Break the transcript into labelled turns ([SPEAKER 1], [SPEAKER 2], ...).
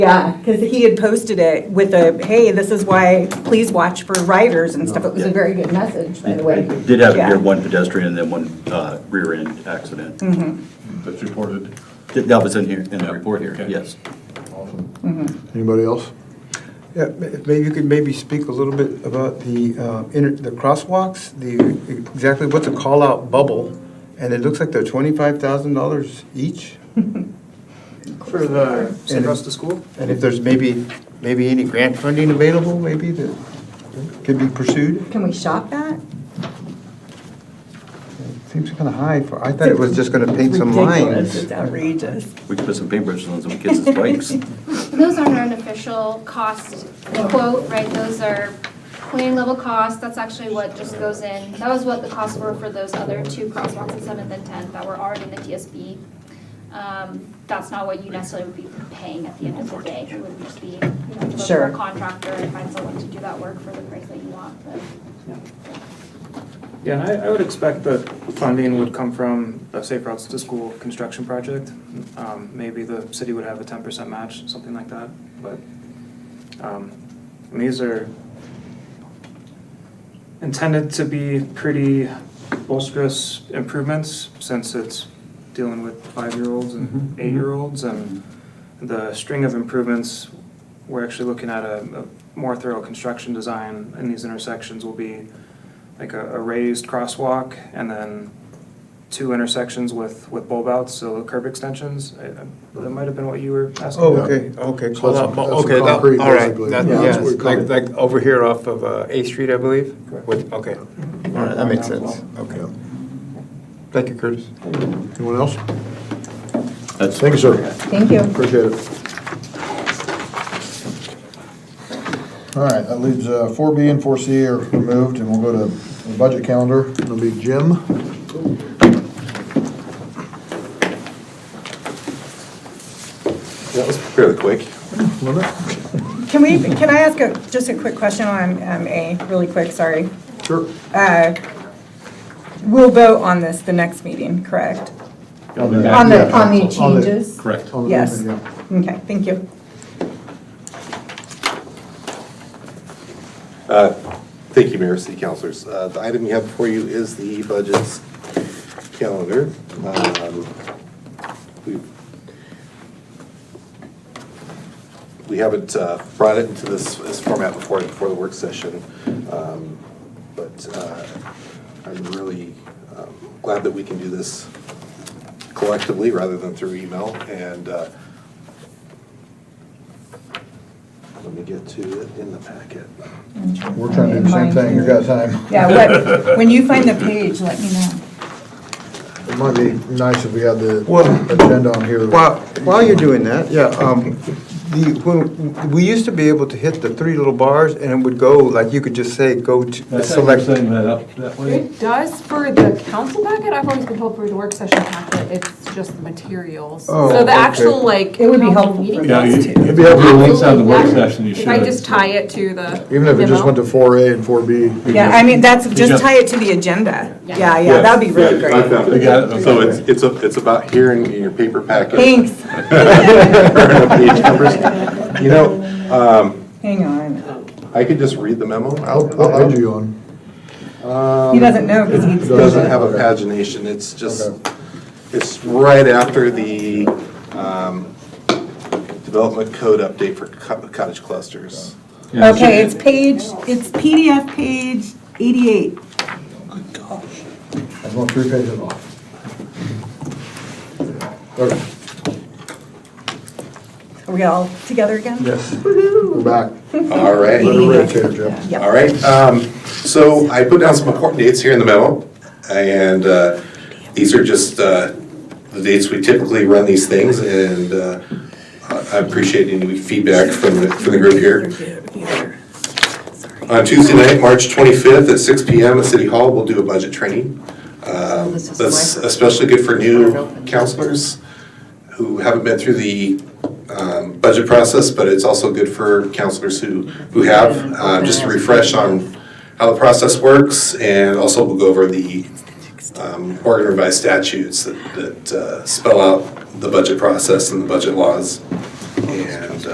[SPEAKER 1] Yeah, because he had posted it with a, hey, this is why, please watch for riders and stuff. It was a very good message, by the way.
[SPEAKER 2] It Did have,
[SPEAKER 1] Yeah.
[SPEAKER 2] there one pedestrian and then one uh, rear-end accident.
[SPEAKER 1] Mm.
[SPEAKER 3] That's reported.
[SPEAKER 2] That that was in here, in the report here,
[SPEAKER 3] Okay.
[SPEAKER 2] yes.
[SPEAKER 3] Awesome.
[SPEAKER 4] Anybody else?
[SPEAKER 5] Yeah, ma- maybe you could maybe speak a little bit about the, uh, inter- the crosswalks, the, exactly what's a call-out bubble? And it looks like they're twenty-five thousand dollars each?
[SPEAKER 6] For the
[SPEAKER 5] And-
[SPEAKER 6] Suncoast to school?
[SPEAKER 5] And if there's maybe, maybe any grant funding available, maybe that could be pursued?
[SPEAKER 1] Can we shop that?
[SPEAKER 5] Seems kinda high for, I thought it was just gonna paint some
[SPEAKER 1] Ridiculous.
[SPEAKER 5] lines.
[SPEAKER 1] It's outrageous.
[SPEAKER 2] We could put some paintbrushes on some kids' bikes.
[SPEAKER 7] Those aren't an official cost quote, right? Those are plan level costs. That's actually what just goes in. That was what the costs were for those other two crosswalks at Seventh and Tenth that were already in the TSB. Um, That's not what you necessarily would be paying at the end of the day. It would just be, you know, look for
[SPEAKER 1] Sure.
[SPEAKER 7] a contractor and find someone to do that work for the price that you want. But
[SPEAKER 6] Yeah, and I, I would expect that funding would come from the Safe Routes to School construction project. Um, maybe the city would have a ten percent match, something like that, but, um, and these are intended to be pretty bolsterous improvements, since it's dealing with five-year-olds and eight-year-olds, and the string of improvements, we're actually looking at a, a more thorough construction design in these intersections will be like a, a raised crosswalk and then two intersections with, with bulb outs, so curb extensions. I, I- that might have been what you were asking.
[SPEAKER 5] Oh, okay, okay, call-out, bu-
[SPEAKER 4] That's
[SPEAKER 5] okay, that-
[SPEAKER 4] concrete,
[SPEAKER 5] all right,
[SPEAKER 4] basically.
[SPEAKER 5] that-
[SPEAKER 4] Yeah.
[SPEAKER 5] yes,
[SPEAKER 4] That's what
[SPEAKER 5] like,
[SPEAKER 4] it-
[SPEAKER 5] like over here off of uh, A Street, I believe?
[SPEAKER 6] Correct.
[SPEAKER 5] With- Okay, all right, that makes sense, Oh, okay. Thank you, Curtis.
[SPEAKER 4] Anyone else?
[SPEAKER 2] That's-
[SPEAKER 4] Thank you, sir.
[SPEAKER 1] Thank you.
[SPEAKER 4] Appreciate it. All right, that leaves uh, four B and four C are removed, and we'll go to the budget calendar. It'll be Jim.
[SPEAKER 8] That was fairly quick.
[SPEAKER 4] wasn't it?
[SPEAKER 1] Can we, can I ask a, just a quick question on um, A, really quick, sorry?
[SPEAKER 4] Sure.
[SPEAKER 1] Uh, We'll vote on this the next meeting, correct?
[SPEAKER 4] On the,
[SPEAKER 1] On the, on the changes?
[SPEAKER 3] Correct.
[SPEAKER 4] on the-
[SPEAKER 1] Yes.
[SPEAKER 4] yeah.
[SPEAKER 1] Okay, thank you.
[SPEAKER 8] Uh, Thank you, Mayor, City Councilors. Uh, The item you have before you is the budget's calendar. Um, we- We haven't uh, brought it into this this format before, before the work session, Um, but uh, I'm really um, glad that we can do this collectively rather than through email, and uh, let me get to it in the packet.
[SPEAKER 4] We're trying to do the same thing, you got time.
[SPEAKER 1] Yeah, what, when you find the page, let me know.
[SPEAKER 4] It might be nice if we had the
[SPEAKER 5] Well-
[SPEAKER 4] agenda on here.
[SPEAKER 5] While, while you're doing that, yeah, um, the, when, we used to be able to hit the three little bars and it would go, like, you could just say, go to, select.
[SPEAKER 3] that up that
[SPEAKER 9] It does for the council packet, I've always been told for the work session packet, it's just the materials.
[SPEAKER 5] Oh,
[SPEAKER 9] So the
[SPEAKER 5] okay.
[SPEAKER 9] actual, like.
[SPEAKER 1] It would be
[SPEAKER 9] council
[SPEAKER 1] helpful
[SPEAKER 9] meeting
[SPEAKER 1] for
[SPEAKER 3] Yeah, you-
[SPEAKER 9] notes,
[SPEAKER 3] if you have your links out of the work
[SPEAKER 9] Absolutely, yeah.
[SPEAKER 3] session, you should.
[SPEAKER 9] If I just tie it to the.
[SPEAKER 4] Even if it just went to four A and four B.
[SPEAKER 1] Yeah, I mean, that's, just
[SPEAKER 3] just-
[SPEAKER 1] tie it to the agenda.
[SPEAKER 9] Yeah.
[SPEAKER 1] Yeah, yeah, that'd be really
[SPEAKER 8] Yeah, I
[SPEAKER 1] great.
[SPEAKER 8] found
[SPEAKER 3] You got it?
[SPEAKER 8] it. So it's, it's, a- it's about here in in your paper packet.
[SPEAKER 1] Thanks.
[SPEAKER 8] Page numbers. You know,
[SPEAKER 1] Hang on.
[SPEAKER 8] I could just read the memo.
[SPEAKER 4] I'll, I'll add you on.
[SPEAKER 1] He doesn't know because he's.
[SPEAKER 8] It doesn't have a pagination, it's just, it's right after the um, development code update for co- cottage clusters.
[SPEAKER 1] Okay, it's page, it's PDF page 88.
[SPEAKER 4] I'm going three pages off. Okay,
[SPEAKER 1] Are we all together again?
[SPEAKER 5] Yes.
[SPEAKER 4] we're back.
[SPEAKER 8] All right.
[SPEAKER 4] Let her read it, Taylor, Jeff.
[SPEAKER 1] Yep.
[SPEAKER 8] All right, um, so I put down some important dates here in the memo, and, uh, these are just, uh, the dates we typically run these things, and, uh, I I appreciate any feedback from, the- from the group here. On Uh, Tuesday night, March twenty-fifth, at six P M. at City Hall, we'll do a budget training. Um, that's especially good for new counselors who haven't been through the um, budget process, but it's also good for counselors who, who have, uh, just to refresh on how the process works, and also we'll go over the um, Oregon revised statutes that that, uh, spell out the budget process and the budget laws. And